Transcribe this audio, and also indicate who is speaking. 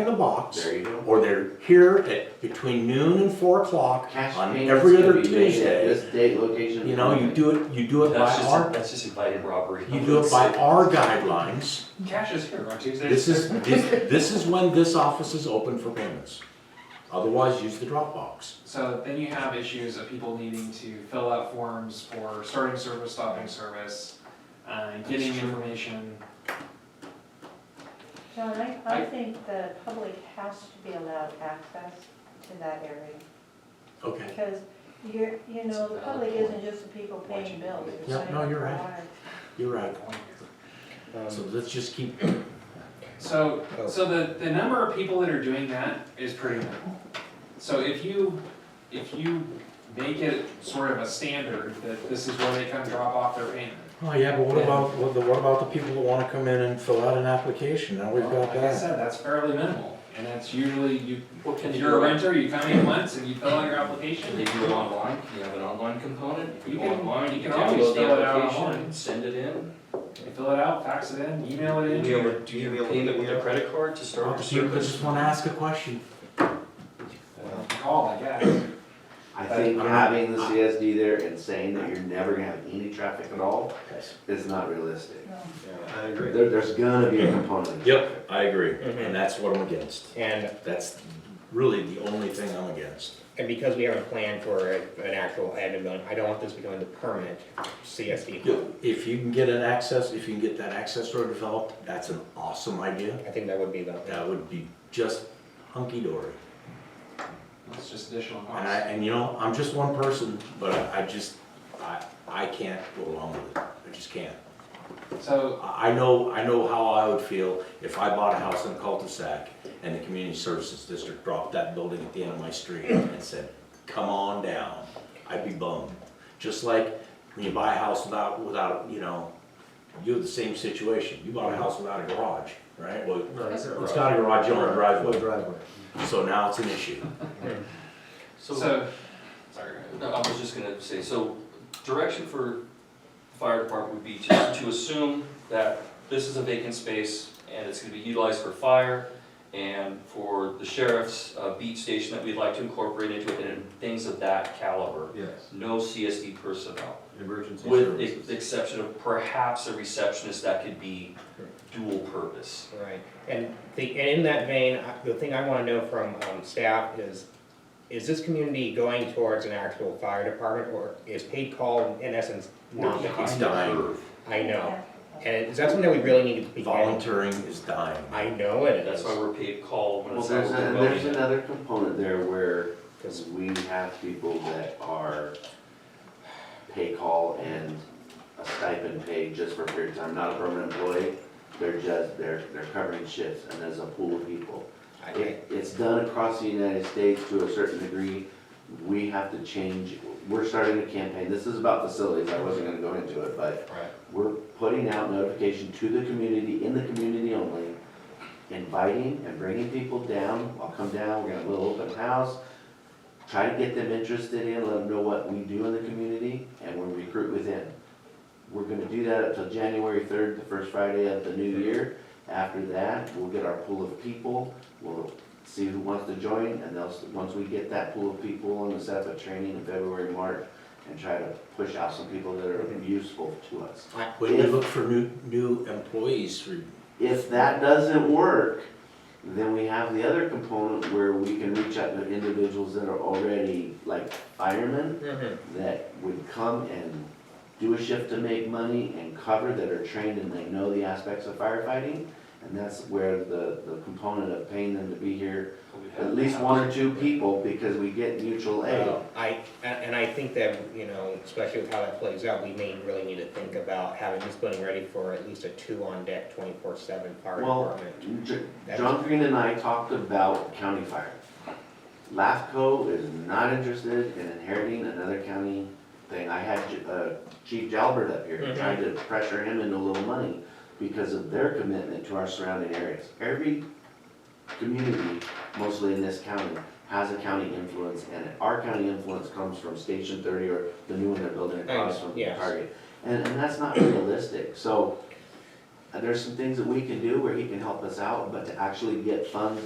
Speaker 1: in a box,
Speaker 2: There you go.
Speaker 1: or they're here at between noon and four o'clock
Speaker 2: Cash
Speaker 1: on
Speaker 2: payments
Speaker 1: every
Speaker 2: can
Speaker 1: other
Speaker 2: be made at
Speaker 1: Tuesday.
Speaker 2: this date, location.
Speaker 1: You know, you do it, you do it by
Speaker 3: That's just,
Speaker 1: our,
Speaker 3: that's just invited robbery.
Speaker 1: you do it by our guidelines.
Speaker 3: Cash is here on Tuesday.
Speaker 1: This is, this, this is when this office is open for payments. Otherwise, use the Dropbox.
Speaker 4: So then you have issues of people needing to fill out forms for starting service, stopping service, uh, getting information.
Speaker 5: John, I, I
Speaker 4: I-
Speaker 5: think the public has to be allowed access to that area,
Speaker 1: Okay,
Speaker 5: because you're, you know, the
Speaker 3: That's a valid
Speaker 5: public
Speaker 3: point.
Speaker 5: isn't just the people paying
Speaker 3: Watching
Speaker 5: bills.
Speaker 3: movies.
Speaker 5: you're
Speaker 1: Yeah,
Speaker 5: signing
Speaker 1: no,
Speaker 5: up
Speaker 1: you're
Speaker 5: for
Speaker 1: right.
Speaker 5: lives.
Speaker 1: you're right. So
Speaker 4: Um,
Speaker 1: let's just keep,
Speaker 4: So, so the, the number of people that are doing that is pretty minimal. So if you, if you make it sort of a standard that this is where they come drop off their payment.
Speaker 1: oh yeah, but what
Speaker 4: Yeah.
Speaker 1: about, what the- what about the people that wanna come in and fill out an application? Now we've
Speaker 4: Well,
Speaker 1: got
Speaker 4: Like I
Speaker 1: that.
Speaker 4: said, that's fairly minimal, and that's usually, you,
Speaker 3: What can
Speaker 4: if
Speaker 3: you
Speaker 4: you're a
Speaker 3: do?
Speaker 4: renter, you come in once and you fill out your application.
Speaker 3: Can you do it online? Can you have an online component? If you
Speaker 4: You
Speaker 3: go
Speaker 4: can-
Speaker 3: online,
Speaker 4: you
Speaker 3: you can
Speaker 4: can always
Speaker 3: download the
Speaker 4: fill it out
Speaker 3: application,
Speaker 4: online.
Speaker 3: send it in.
Speaker 4: You fill it out, fax it in, email it in.
Speaker 3: Do your, do your payment with a credit card to
Speaker 1: Oh,
Speaker 3: start your
Speaker 1: You just
Speaker 3: service?
Speaker 1: wanna ask a question.
Speaker 4: call, I guess.
Speaker 2: I think having the CSD there and saying that you're never gonna have any traffic at all is not realistic.
Speaker 6: I agree.
Speaker 2: There, there's gonna be a component.
Speaker 1: Yep, I agree,
Speaker 4: Mm-hmm.
Speaker 7: Mhm.
Speaker 1: and that's what I'm against.
Speaker 7: And,
Speaker 1: That's really the only thing I'm against.
Speaker 7: and because we haven't planned for a- an actual admin building, I don't want this becoming the permanent CSD. hub.
Speaker 1: If you can get an access, if you can get that access road developed, that's an awesome idea.
Speaker 7: I think that would be the,
Speaker 1: That would be just hunky dory.
Speaker 4: It's just additional
Speaker 1: And I,
Speaker 4: cost.
Speaker 1: and you know, I'm just one person, but I, I just, I, I can't go along with it. I just can't.
Speaker 4: So,
Speaker 1: I, I know, I know how I would feel if I bought a house in a cul-de-sac and the community services district dropped that building at the end of my street and said, come on down. I'd be bummed. Just like when you buy a house without, without, you know, you have the same situation. You bought a house without a garage, right? Well, it's got a garage on a driveway,
Speaker 6: driveway.
Speaker 1: so now it's an issue.
Speaker 3: So,
Speaker 4: so, sorry.
Speaker 3: no, I was just gonna say, so direction for the fire department would be to, to assume that this is a vacant space and it's gonna be utilized for fire and for the sheriff's uh, beat station that we'd like to incorporate into it and things of that caliber.
Speaker 6: Yes,
Speaker 3: No CSD personnel.
Speaker 6: emergency
Speaker 3: With the
Speaker 6: services.
Speaker 3: exception of perhaps a receptionist that could be dual purpose.
Speaker 7: right. And the, and in that vein, I- the thing I wanna know from, um, staff is, is this community going towards an actual fire department, or is paid call in essence not the
Speaker 1: It's
Speaker 7: case?
Speaker 1: dying.
Speaker 7: I know,
Speaker 5: Yeah.
Speaker 7: and is that something that we really need to be?
Speaker 1: Volunteering is dying.
Speaker 7: I know it
Speaker 3: That's
Speaker 7: is,
Speaker 3: why we're paid call when
Speaker 2: Well,
Speaker 3: it's
Speaker 2: there's,
Speaker 3: out
Speaker 2: a-
Speaker 3: we're
Speaker 2: there's
Speaker 3: voting.
Speaker 2: another component there where
Speaker 7: 'Cause-
Speaker 2: we have people that are pay call and a stipend paid just for a period of time, not a permanent employee. They're just, they're, they're covering shifts and there's a pool of people.
Speaker 7: I think.
Speaker 2: It, it's done across the United States to a certain degree. We have to change, we're starting a campaign, this is about facilities, I wasn't gonna go into it, but
Speaker 3: Right.
Speaker 2: we're putting out notification to the community, in the community only, inviting and bringing people down, I'll come down, we're gonna have a little open house, try to get them interested in, let them know what we do in the community, and we recruit within. We're gonna do that up till January third, the first Friday of the new year. After that, we'll get our pool of people, we'll see who wants to join, and they'll, once we get that pool of people, and we'll set up a training in February, March, and try to push out some people that are useful to us.
Speaker 1: When we look for new, new employees for
Speaker 2: If that doesn't work, then we have the other component where we can reach out to individuals that are already like firemen
Speaker 7: Mhm.
Speaker 2: that would come and do a shift to make money and cover that are trained and they know the aspects of firefighting. And that's where the, the component of paying them to be here, at least one or two people, because we get mutual aid.
Speaker 7: Well, Oh, I, and and I think that, you know, especially with how that plays out, we may really need to think about having this building ready for at least a two-on-deck, twenty-four-seven fire
Speaker 2: Well,
Speaker 7: department.
Speaker 2: J-
Speaker 7: That's-
Speaker 2: John Green and I talked about county fire. LAFCO is not interested in inheriting another county thing. I had J- uh, Chief Jalbert up here
Speaker 7: Mhm.
Speaker 2: trying to pressure him into a little money because of their commitment to our surrounding areas. Every community, mostly in this county, has a county influence and our county influence comes from Station Thirty or the new one they're building across from
Speaker 7: Yes.
Speaker 2: Target. And, and that's not realistic. So uh, there's some things that we can do where he can help us out, but to actually get funds